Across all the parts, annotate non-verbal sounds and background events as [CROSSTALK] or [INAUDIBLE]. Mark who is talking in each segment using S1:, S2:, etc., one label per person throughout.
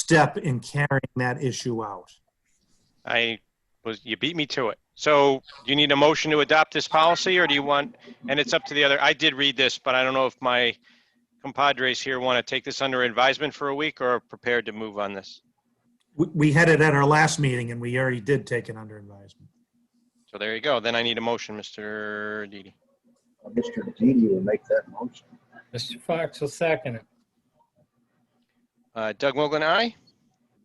S1: step in carrying that issue out.
S2: I was, you beat me to it. So do you need a motion to adopt this policy or do you want, and it's up to the other, I did read this, but I don't know if my compadres here want to take this under advisement for a week or are prepared to move on this.
S1: We, we had it at our last meeting and we already did take it under advisement.
S2: So there you go. Then I need a motion, Mr. Didi.
S3: Mr. Didi will make that motion.
S4: Mr. Fox will second it.
S2: Uh, Doug Mogul, aye?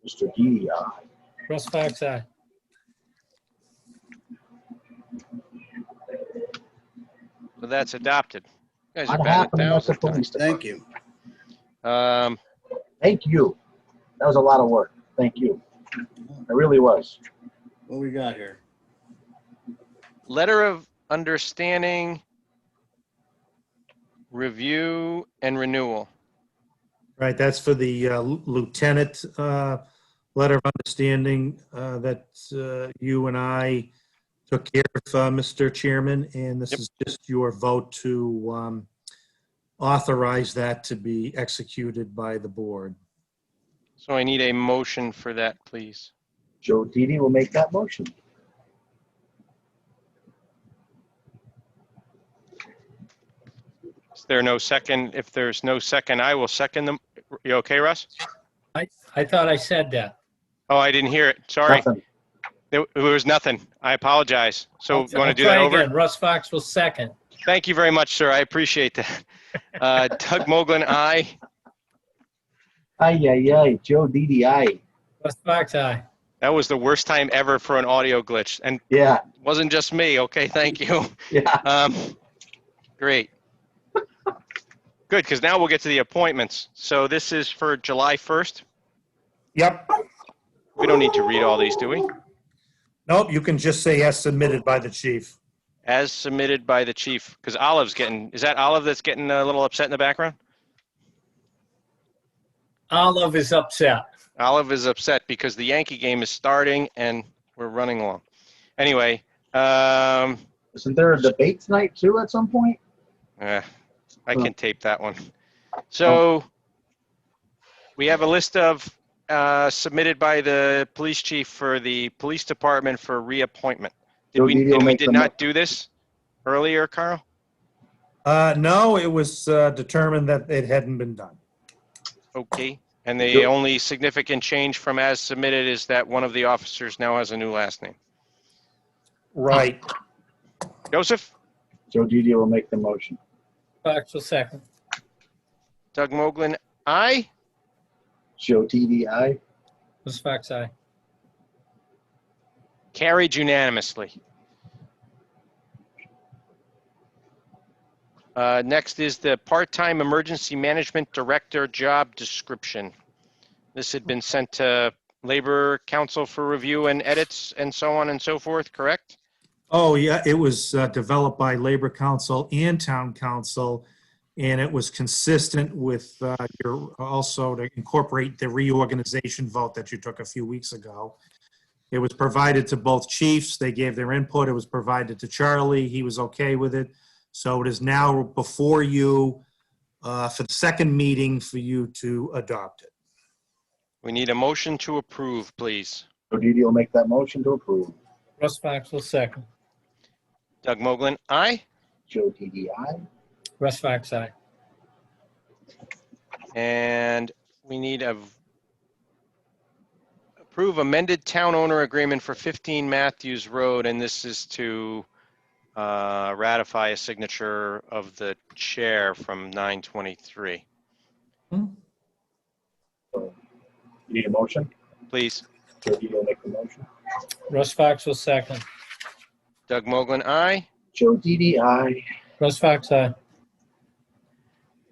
S3: Mr. Didi, uh, aye.
S4: Russ Fox, aye.
S2: So that's adopted. You guys are
S3: What
S2: batting a
S3: happened with the
S2: thousand
S3: police
S2: times.
S3: department?
S5: you.
S2: Um,
S3: Thank you. That was a lot of work. Thank you. It really was.
S5: What we got here?
S2: letter of understanding, review and renewal.
S1: Right, that's for the uh, lieutenant uh, letter of understanding uh, that uh, you and I took care of, uh, Mr. Chairman, and this
S2: Yep.
S1: is just your vote to um, authorize that to be executed by the board.
S2: So I need a motion for that, please.
S3: Joe Didi will make that motion.
S2: Is there no second? If there's no second, I will second them. You okay, Russ?
S4: I, I thought I said that.
S2: Oh, I didn't hear it. Sorry.
S3: Nothing.
S2: There there was nothing. I apologize. So you want
S4: I'll
S2: to do that
S4: try
S2: over?
S4: again. Russ Fox will second.
S2: Thank you very much, sir. I appreciate
S4: [LAUGHS]
S2: that. Uh, Doug Moglen, aye.
S3: Aye, aye, aye. Joe Didi, aye.
S4: Russ Fox, aye.
S2: That was the worst time ever for an audio glitch and
S3: Yeah,
S2: wasn't just me. Okay, thank you.
S3: yeah.
S2: Um, great. Good, because now we'll get to the appointments. So this is for July 1st.
S1: Yep.
S2: We don't need to read all these, do we?
S1: Nope, you can just say as submitted by the chief.
S2: As submitted by the chief, because Olive's getting, is that Olive that's getting a little upset in the background?
S4: Olive is upset.
S2: Olive is upset because the Yankee game is starting and we're running long. Anyway, um,
S3: Isn't there a debate tonight too at some point?
S2: eh, I
S3: Oh.
S2: can tape that one. So we have a list of uh, submitted by the police chief for the police department for reappointment. Did
S3: Joe
S2: we,
S3: Didi will
S2: and we
S3: make
S2: did
S3: the
S2: not do this earlier, Carl?
S1: Uh, No, it was uh, determined that it hadn't been done.
S2: Okay. And the
S3: Joe-
S2: only significant change from as submitted is that one of the officers now has a new last name.
S1: Right.
S2: Joseph,
S3: Joe Didi will make the motion.
S4: Fox will second.
S2: Doug Moglen, aye?
S3: Joe Didi, aye.
S4: Russ Fox, aye.
S2: Carried unanimously. Uh, Next is the part-time emergency management director job description. This had been sent to Labor Council for review and edits and so on and so forth, correct?
S1: Oh, yeah, it was uh, developed by Labor Council and Town Council, and it was consistent with uh, your, also to incorporate the reorganization vote that you took a few weeks ago. It was provided to both chiefs, they gave their input, it was provided to Charlie, he was okay with it. So it is now before you uh, for the second meeting for you to adopt it.
S2: We need a motion to approve, please.
S3: Joe Didi will make that motion to approve.
S4: Russ Fox will second.
S2: Doug Moglen, aye?
S3: Joe Didi, aye.
S4: Russ Fox, aye.
S2: And we need a v- approve amended town owner agreement for 15 Matthews Road, and this is to uh, ratify a signature of the chair from 923.
S3: You need a motion?
S2: Please,
S3: Joe Didi will make the motion.
S4: Russ Fox will second.
S2: Doug Moglen, aye.
S3: Joe Didi, aye.
S4: Russ Fox, aye.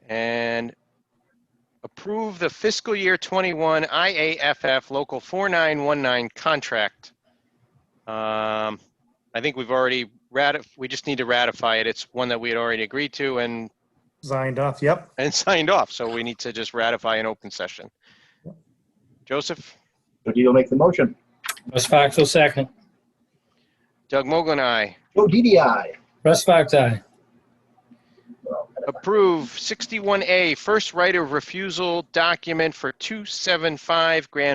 S2: And approve the fiscal year 21 IAFF Local 4919 contract. Um, I think we've already ratif, we just need to ratify it. It's one that we had already agreed to and
S1: Signed off, yep.
S2: and [LAUGHS] signed off, so we need to just ratify an open session. Joseph,
S3: Joe Didi will make the motion.
S4: Russ Fox will second.
S2: Doug Mogul and I.
S3: Joe Didi, aye.
S4: Russ Fox, aye.
S2: Approve 61A, first right of refusal document for 275 Grand